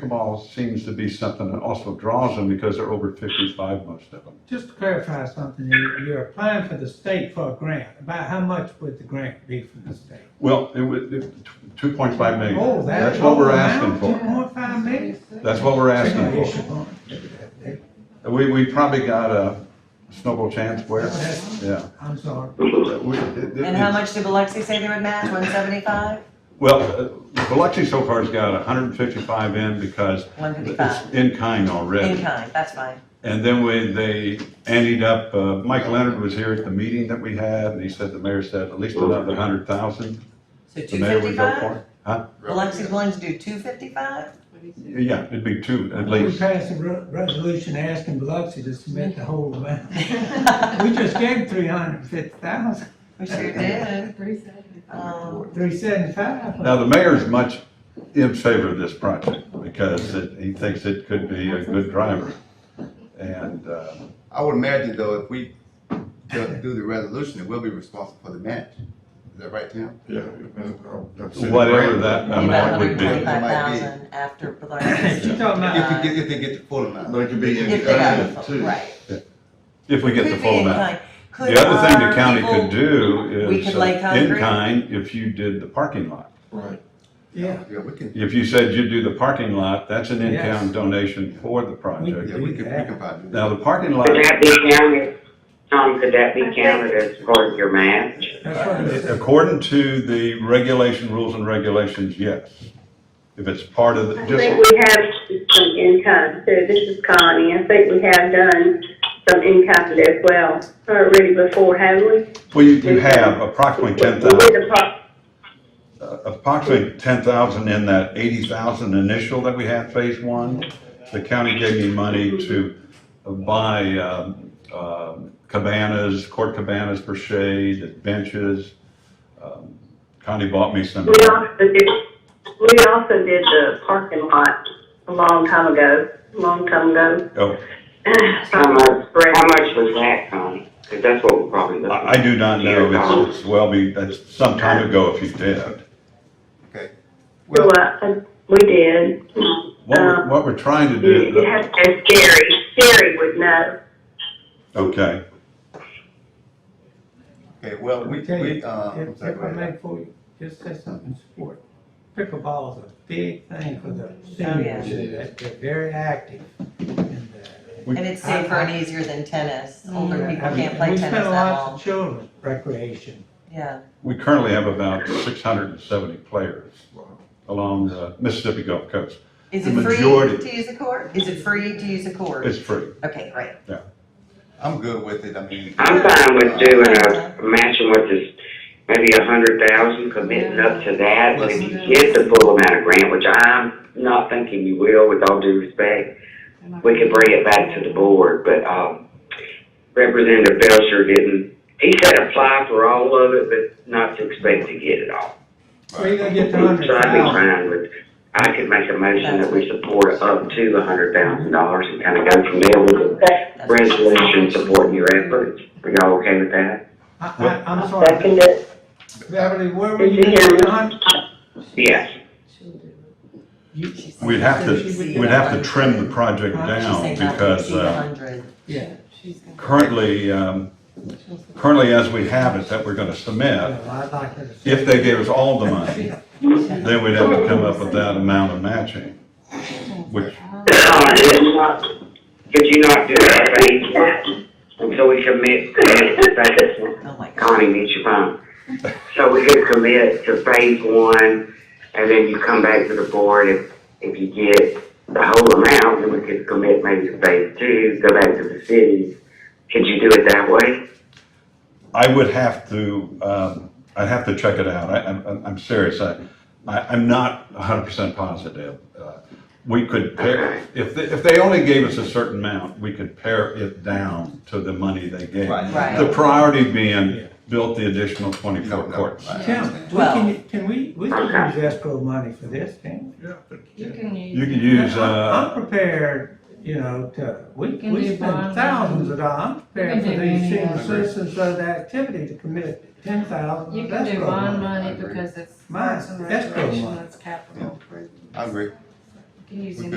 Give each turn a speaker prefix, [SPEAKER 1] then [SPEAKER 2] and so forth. [SPEAKER 1] pickleball seems to be something that also draws them because they're over fifty-five, most of them.
[SPEAKER 2] Just to clarify something, you- you're applying for the state for a grant. About how much would the grant be from the state?
[SPEAKER 1] Well, it was, two point five million.
[SPEAKER 2] Oh, that-
[SPEAKER 1] That's what we're
[SPEAKER 2] oh,
[SPEAKER 1] asking
[SPEAKER 2] now,
[SPEAKER 1] for.
[SPEAKER 2] 2.5 million?
[SPEAKER 1] That's what we're asking
[SPEAKER 2] Yes,
[SPEAKER 1] for.
[SPEAKER 2] you're going.
[SPEAKER 1] We, we probably got a snowball chance where, yeah.
[SPEAKER 2] I'm sorry.
[SPEAKER 1] We- it- it-
[SPEAKER 3] And how much did Biloxi say they would match, one seventy-five?
[SPEAKER 1] Well, uh, Biloxi so far's got hundred and fifty-five in because
[SPEAKER 3] One
[SPEAKER 1] it's
[SPEAKER 3] fifty-five,
[SPEAKER 1] in kind already.
[SPEAKER 3] in kind, that's fine.
[SPEAKER 1] And then when they ended up, uh, Mike Leonard was here at the meeting that we had, and he said, the mayor said, at least another hundred thousand.
[SPEAKER 3] So
[SPEAKER 1] The
[SPEAKER 3] two
[SPEAKER 1] mayor would go
[SPEAKER 3] fifty-five?
[SPEAKER 1] for it. Huh?
[SPEAKER 3] Biloxi's willing to do two fifty-five?
[SPEAKER 1] Yeah, it'd be two at
[SPEAKER 2] We
[SPEAKER 1] least.
[SPEAKER 2] passed a re- resolution asking Biloxi to submit the whole amount. We just gave three hundred and fifty thousand,
[SPEAKER 3] We sure did.
[SPEAKER 4] Three seventy.
[SPEAKER 3] Um,
[SPEAKER 2] three seventy-five.
[SPEAKER 1] Now, the mayor's much in favor of this project because it- he thinks it could be a good driver. And, uh,
[SPEAKER 5] I would imagine though, if we do do the resolution, it will be responsible for the match. Is that right, Tim?
[SPEAKER 6] Yeah. uh,
[SPEAKER 1] whatever that
[SPEAKER 3] about
[SPEAKER 1] amount
[SPEAKER 3] hundred
[SPEAKER 1] would
[SPEAKER 3] and
[SPEAKER 1] be.
[SPEAKER 3] twenty-five thousand after Biloxi's. uh,
[SPEAKER 2] You talking about, uh,
[SPEAKER 5] If we get, if they get the full amount.
[SPEAKER 6] But it could be
[SPEAKER 3] If
[SPEAKER 6] in
[SPEAKER 3] they got the
[SPEAKER 6] kind
[SPEAKER 3] full,
[SPEAKER 6] too.
[SPEAKER 3] right.
[SPEAKER 1] If we get the
[SPEAKER 3] Could be
[SPEAKER 1] full
[SPEAKER 3] in
[SPEAKER 1] amount.
[SPEAKER 3] kind. Could
[SPEAKER 1] The other thing
[SPEAKER 3] our
[SPEAKER 1] the county
[SPEAKER 3] people-
[SPEAKER 1] could do
[SPEAKER 3] we
[SPEAKER 1] is
[SPEAKER 3] could lay
[SPEAKER 1] uh, in
[SPEAKER 3] concrete?
[SPEAKER 1] kind if you did the parking lot.
[SPEAKER 6] Right.
[SPEAKER 2] yeah,
[SPEAKER 5] Yeah, we can,
[SPEAKER 1] If you said you do the parking lot, that's an in-town
[SPEAKER 2] Yes.
[SPEAKER 1] donation for the project.
[SPEAKER 5] yeah, we can, we can probably do
[SPEAKER 1] Now,
[SPEAKER 5] that.
[SPEAKER 1] the parking lot,
[SPEAKER 7] Could that be counted, Tom, could that be counted as part of your match?
[SPEAKER 2] that's what it is.
[SPEAKER 1] according to the regulation, rules and regulations, yes. If it's part of, the
[SPEAKER 8] I think
[SPEAKER 1] just,
[SPEAKER 8] we have some income too. This is Connie. I think we have done some income as well already before, haven't we?
[SPEAKER 1] well, you, you have approximately ten
[SPEAKER 8] We did
[SPEAKER 1] thousand,
[SPEAKER 8] the pro-
[SPEAKER 1] approximately ten thousand in that eighty thousand initial that we had phase one. The county gave me money to buy, um, um, cabanas, court cabanas for shade, benches. Um, Connie bought me some.
[SPEAKER 8] We also did, we also did the parking lot a long time ago, long time ago.
[SPEAKER 1] Oh.
[SPEAKER 7] How much, how
[SPEAKER 8] Spread.
[SPEAKER 7] much was that, Connie? Because that's what we're probably looking
[SPEAKER 1] I I
[SPEAKER 7] at.
[SPEAKER 1] do not know, it's, it's well be, that's some time ago if you did.
[SPEAKER 8] Well, I- we did.
[SPEAKER 1] What we're, what we're trying to
[SPEAKER 8] It
[SPEAKER 1] do,
[SPEAKER 8] has, and Gary, Gary would know.
[SPEAKER 1] okay,
[SPEAKER 5] Okay, well, we,
[SPEAKER 2] Okay,
[SPEAKER 5] we, uh,
[SPEAKER 2] If
[SPEAKER 5] I'm sorry,
[SPEAKER 2] if
[SPEAKER 5] go
[SPEAKER 2] I
[SPEAKER 5] ahead.
[SPEAKER 2] may, for you, just say something in support. Pickleball is a big thing for the
[SPEAKER 3] yeah.
[SPEAKER 2] seniors, They- they're very active. And, uh,
[SPEAKER 3] And it's safer and easier than tennis. Older
[SPEAKER 2] yeah,
[SPEAKER 3] people
[SPEAKER 2] I mean,
[SPEAKER 3] can't play
[SPEAKER 2] Mm. We
[SPEAKER 3] tennis
[SPEAKER 2] spend a
[SPEAKER 3] that
[SPEAKER 2] lot
[SPEAKER 3] long.
[SPEAKER 2] of children recreation.
[SPEAKER 3] Yeah,
[SPEAKER 1] we currently have about six hundred and seventy players along the Mississippi Gulf Coast.
[SPEAKER 3] is
[SPEAKER 1] The
[SPEAKER 3] it free
[SPEAKER 1] majority-
[SPEAKER 3] to use a court? Is it free to use a court?
[SPEAKER 1] It's free.
[SPEAKER 3] Okay, great.
[SPEAKER 5] I'm good with it, I mean.
[SPEAKER 7] I'm fine with doing a, matching with this, maybe a hundred thousand, committing up to that. And if you get the full amount of grant, which I'm not thinking you will, with all due respect, we could bring it back to the board, but, um, Representative Belcher didn't, he said apply for all of it, but not to expect to get it all.
[SPEAKER 2] Where you gonna get the
[SPEAKER 7] So I'd
[SPEAKER 2] hundred
[SPEAKER 7] be
[SPEAKER 2] thousand?
[SPEAKER 7] fine with, I could make a motion that we support up to a hundred thousand dollars and kind of go from there with a
[SPEAKER 3] That's-
[SPEAKER 7] resolution supporting your efforts. Are y'all okay with that?
[SPEAKER 2] I, I, I'm sorry,
[SPEAKER 8] Second it.
[SPEAKER 2] Beverly, where were you gonna get the hundred?
[SPEAKER 7] Yes.
[SPEAKER 1] We'd have to, we'd have to trim the project
[SPEAKER 3] She's
[SPEAKER 1] down
[SPEAKER 3] saying not to
[SPEAKER 1] because,
[SPEAKER 3] exceed
[SPEAKER 1] uh,
[SPEAKER 3] 100.
[SPEAKER 2] Yeah.
[SPEAKER 1] currently, um, currently as we have it that we're gonna submit,
[SPEAKER 2] Well, I'd like her to say-
[SPEAKER 1] if they gave us all the money, then we'd have to come up with that amount of matching, which
[SPEAKER 7] Could you not- could you not do that, please? Until we commit to phase one.
[SPEAKER 3] Oh my God.
[SPEAKER 7] Connie, meet your phone. So we could commit to phase one, and then you come back to the board if, if you get the whole amount, then we could commit maybe to phase two, go back to the city. Could you do it that way?
[SPEAKER 1] I would have to, um, I'd have to check it out. I, I'm, I'm- I'm serious. I, I, I'm not hundred percent positive. Uh, We could pair, if, they- if they only gave us a certain amount, we could pare it down to the money they gave.
[SPEAKER 5] Right.
[SPEAKER 3] Right.
[SPEAKER 1] The priority being built the additional
[SPEAKER 5] You don't
[SPEAKER 1] twenty-four
[SPEAKER 5] know.
[SPEAKER 1] courts.
[SPEAKER 5] Right, I
[SPEAKER 2] Tim,
[SPEAKER 5] understand.
[SPEAKER 2] we can, can we, we can
[SPEAKER 7] Okay.
[SPEAKER 2] use escrow money for this, can we?
[SPEAKER 4] You can use.
[SPEAKER 1] You could use,
[SPEAKER 2] I'm
[SPEAKER 1] uh,
[SPEAKER 2] prepared, you know, to, we,
[SPEAKER 4] We can
[SPEAKER 2] we
[SPEAKER 4] do
[SPEAKER 2] spend
[SPEAKER 4] bond.
[SPEAKER 2] thousands of dollars, I'm prepared
[SPEAKER 4] We
[SPEAKER 2] for
[SPEAKER 4] can do
[SPEAKER 2] these
[SPEAKER 4] any
[SPEAKER 2] senior
[SPEAKER 4] of
[SPEAKER 5] them.
[SPEAKER 2] citizens of the activity to commit ten thousand
[SPEAKER 4] You
[SPEAKER 2] of
[SPEAKER 4] can do
[SPEAKER 2] escrow money.
[SPEAKER 4] bond money
[SPEAKER 5] agree.
[SPEAKER 4] because it's
[SPEAKER 2] Mine,
[SPEAKER 4] parks and
[SPEAKER 2] escrow
[SPEAKER 4] recreation,
[SPEAKER 2] money.
[SPEAKER 4] it's capital.
[SPEAKER 5] I agree.
[SPEAKER 4] Can use
[SPEAKER 5] We
[SPEAKER 4] any